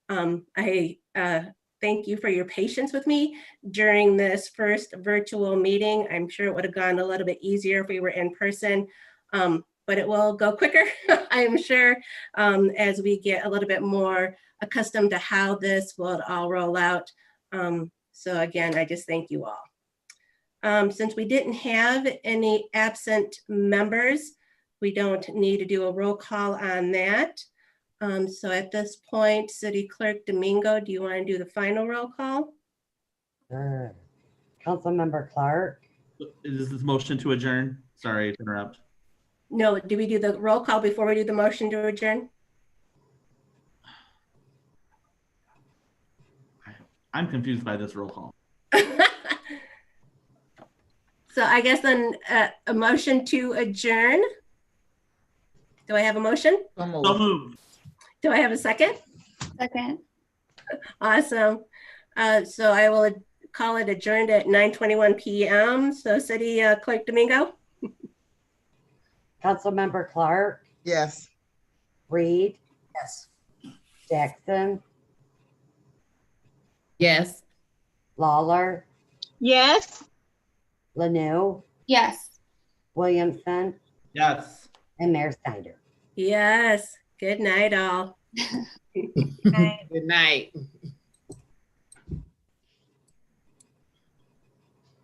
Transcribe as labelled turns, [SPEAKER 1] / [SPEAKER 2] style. [SPEAKER 1] Um, I uh, thank you for your patience with me during this first virtual meeting. I'm sure it would have gone a little bit easier if we were in person, um, but it will go quicker, I am sure, um, as we get a little bit more accustomed to how this will all roll out. Um, So again, I just thank you all. Um, Since we didn't have any absent members, we don't need to do a roll call on that. Um, So at this point, City Clerk Domingo, do you want to do the final roll call?
[SPEAKER 2] Sure. Councilmember Clark,
[SPEAKER 3] Is this motion to adjourn? Sorry to interrupt.
[SPEAKER 1] No, do we do the roll call before we do the motion to adjourn?
[SPEAKER 3] I'm confused by this roll call.
[SPEAKER 1] So I guess then uh, a motion to adjourn. Do I have a motion?
[SPEAKER 3] So moved.
[SPEAKER 1] Do I have a second?
[SPEAKER 4] Second.
[SPEAKER 1] Awesome. Uh, So I will call it adjourned at 9:21 PM. So City uh, Clerk Domingo?
[SPEAKER 2] Councilmember Clark,
[SPEAKER 5] Yes.
[SPEAKER 2] Reed. Yes. Jackson,
[SPEAKER 6] Yes.
[SPEAKER 2] Lawler,
[SPEAKER 7] Yes.
[SPEAKER 2] Lanu,
[SPEAKER 4] Yes.
[SPEAKER 2] Williamson,
[SPEAKER 3] Yes.
[SPEAKER 2] and Mayor Snyder.
[SPEAKER 1] Yes. Good night, all.
[SPEAKER 6] Good night.